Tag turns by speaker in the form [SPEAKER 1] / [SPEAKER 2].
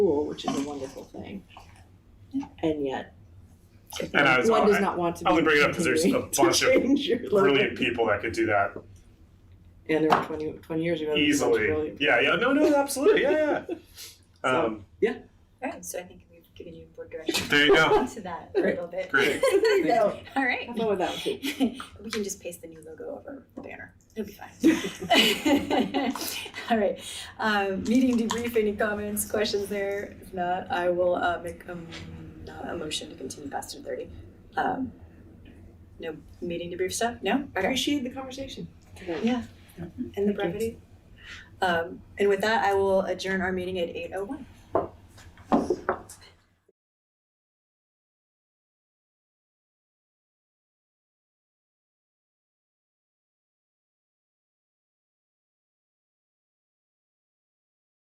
[SPEAKER 1] school, which is a wonderful thing. And yet, if
[SPEAKER 2] And I was-
[SPEAKER 1] one does
[SPEAKER 2] I-
[SPEAKER 1] not want to be
[SPEAKER 2] I only bring it up 'cause there's a
[SPEAKER 1] continuing to
[SPEAKER 2] bunch of
[SPEAKER 1] change your logo.
[SPEAKER 2] brilliant people that could do that
[SPEAKER 1] And there were 20, 20 years ago. there was a bunch of
[SPEAKER 2] easily.
[SPEAKER 1] brilliant-
[SPEAKER 2] Yeah, yeah, no, no, absolutely, yeah, yeah. Um,
[SPEAKER 3] Alright, so I think we've given you board direction
[SPEAKER 2] there you go.
[SPEAKER 3] to that a little bit.
[SPEAKER 2] Great.
[SPEAKER 1] There you go.
[SPEAKER 3] Alright.
[SPEAKER 1] Have fun with that one, too.
[SPEAKER 3] We can just paste the new logo over the banner. It'll be fine. Alright, um, meeting debrief, any comments, questions there? If not, I will, uh, make, um, not a motion to continue past ten thirty. Um, no meeting debrief stuff? No?
[SPEAKER 1] I
[SPEAKER 3] Okay.
[SPEAKER 1] appreciate the conversation today.
[SPEAKER 3] Yeah. And the
[SPEAKER 1] Thank
[SPEAKER 3] brevity. Um, and with that, I will adjourn our meeting at eight oh one.